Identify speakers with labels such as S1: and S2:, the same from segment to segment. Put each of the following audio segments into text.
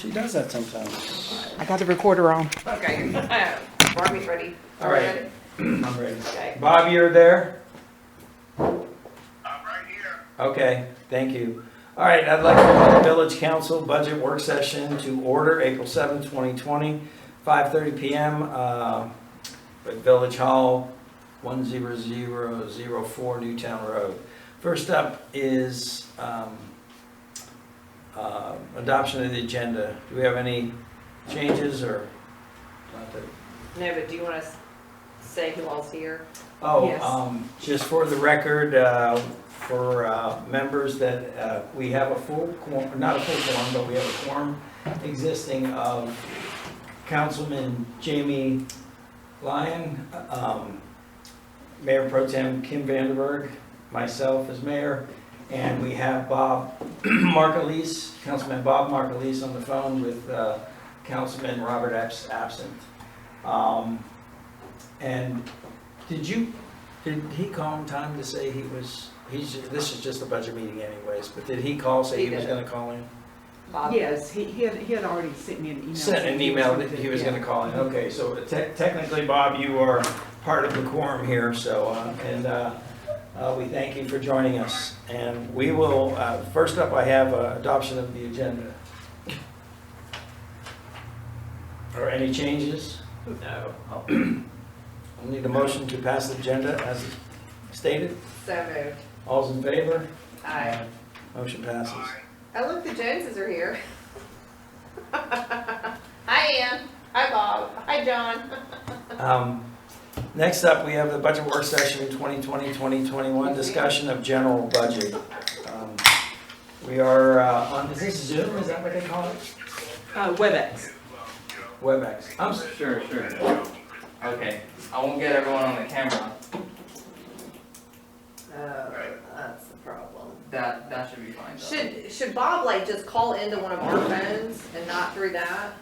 S1: does that sometimes.
S2: I got the recorder on.
S3: Okay, Barbie's ready.
S1: All right. I'm ready.
S3: Okay.
S4: Bob, you're there?
S5: I'm right here.
S4: Okay, thank you. All right, I'd like to call the Village Council Budget Work Session to order, April 7, 2020, 5:30 PM uh, at Village Hall, 10004 Newtown Road. First up is um, uh, adoption of the agenda. Do we have any changes or? not that-
S3: No, but do you want to say who all's here?
S4: Oh,
S3: Yes.
S4: um, just for the record, uh, for, uh, members that, uh, we have a full quorum, not a full quorum, but we have a quorum existing of Councilman Jamie Lyon, um, Mayor Pro Tem Kim Vanderberg, myself as mayor, and we have Bob Markleese, Councilman Bob Markleese on the phone with, uh, Councilman Robert Abs- absent. Um, and did you, did he call in time to say he was, he's, this is just a budget meeting anyways, but did he call, say
S3: He
S4: he was
S3: did.
S4: gonna call in?
S3: Bob?
S2: Yes, he, he had, he had already sent me an email.
S4: Sent an
S2: saying
S4: email
S2: was
S4: that he was
S2: yeah.
S4: gonna call in, okay, so te- technically, Bob, you are part of the quorum here, so, uh, and, uh, uh, we thank you for joining us, and we will, uh, first up, I have uh, adoption of the agenda. Or any changes? No. I need a motion to pass the agenda as stated.
S3: So moved.
S4: All's in favor?
S3: Aye.
S4: Motion passes.
S5: Aye.
S3: Oh, look, the Joneses are here. Hi, Ann. Hi, Bob. Hi, John.
S4: Um, Next up, we have the budget work session 2020, 2021, discussion of general budget. Um, We are uh, on, is this Zoom, is that what they call it?
S2: Uh, WebEx.
S4: WebEx. I'm s-
S6: Sure, sure. Okay, I won't get everyone on the camera.
S3: Oh, that's the problem.
S6: That that should be fine. Though.
S3: Should, should Bob like just call into one of our phones and not through that?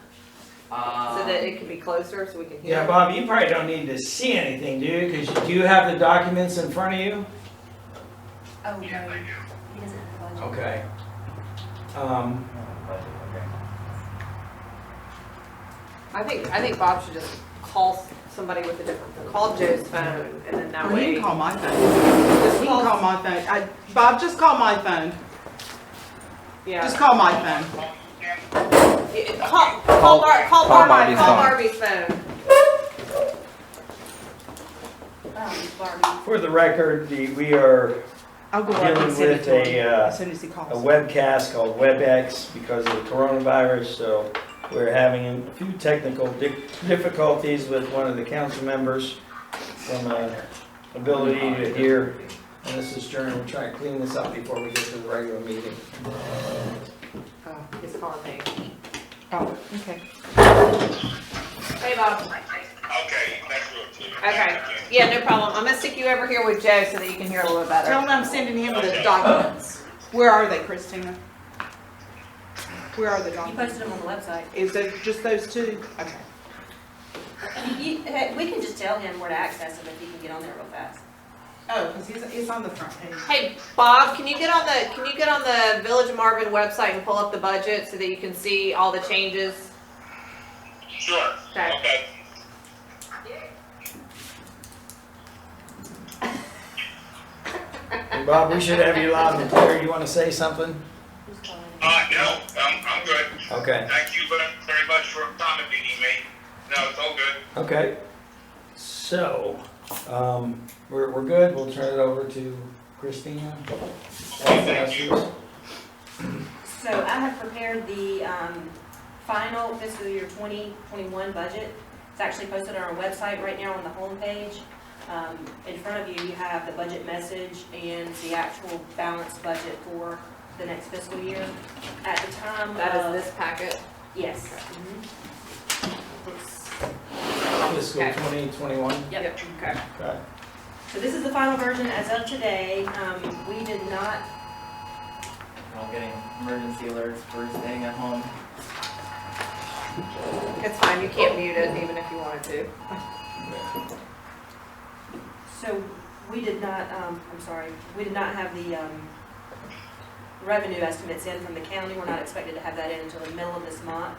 S6: Um,
S3: So that it can be closer so we can hear?
S4: Uh, Yeah, Bob, you probably don't need to see anything, do you? Because you have the documents in front of you?
S7: Oh, no,
S5: Yes, I do.
S7: he doesn't have a budget.
S4: Okay. Um,
S3: I think, I think Bob should just call s- somebody with a different, call Joe's phone and then that
S2: Well, he
S3: way.
S2: can call my phone. Just he can call my phone. I, Bob, just call my phone.
S3: Yeah.
S2: Just call my phone.
S3: Yeah, Call, call Bar, call
S6: Call
S3: Barbie,
S6: Barbie's
S3: call
S6: phone.
S3: Barbie's phone.
S7: Um,
S3: Oh,
S7: Barbie.
S4: For the record, the- we are
S2: I'll go up and
S4: dealing
S2: send it
S4: with
S2: to him
S4: a uh,
S2: as soon as he calls.
S4: a webcast called WebEx because of the coronavirus, so we're having a few technical di- difficulties with one of the council members from uh, ability to hear. And this is during, we're trying to clean this up before we get to the regular meeting.
S3: Oh, He's calling me.
S2: Oh, okay.
S3: Hey, Bob.
S5: Okay, that's real clear.
S3: Okay, yeah, no problem. I'm gonna stick you over here with Joe so that you can hear a little
S2: Tell
S3: better.
S2: him I'm sending him the documents. Where are they, Christina? Where are the
S3: Oh.
S7: You
S2: documents?
S7: posted them on the website.
S2: Is there just those two? Okay.
S7: You, hey, we can just tell him where to access them if he can get on there real fast.
S2: Oh, because he's, it's on the front page.
S3: Hey, Bob, can you get on the, can you get on the Village of Marvin website and pull up the budget so that you can see all the changes?
S5: Sure,
S3: Okay.
S5: okay.
S4: And Bob, we should have you loud and clear. You want to say something?
S7: Who's calling?
S5: Uh, no, I'm, I'm good.
S4: Okay,
S5: Thank you very very much for accommodating me. No, it's all good.
S4: okay. So, um, we're, we're good. We'll turn it over to Christina.
S5: Thank you.
S7: So I have prepared the um, final fiscal year 2021 budget. It's actually posted on our website right now on the homepage. Um, In front of you, you have the budget message and the actual balanced budget for the next fiscal year. At the time of...
S3: That is this packet.
S7: Yes. Mm-hmm. It's-
S4: Fiscal 2021.
S7: Yep.
S3: Okay.
S4: Okay.
S7: So this is the final version as of today. Um, We did not
S6: We're all getting emergency alerts for staying at home.
S3: It's fine, you can't mute it even if you wanted to.
S7: So we did not, um, I'm sorry, we did not have the, um, revenue estimates in from the county. We're not expected to have that in until the middle of this month.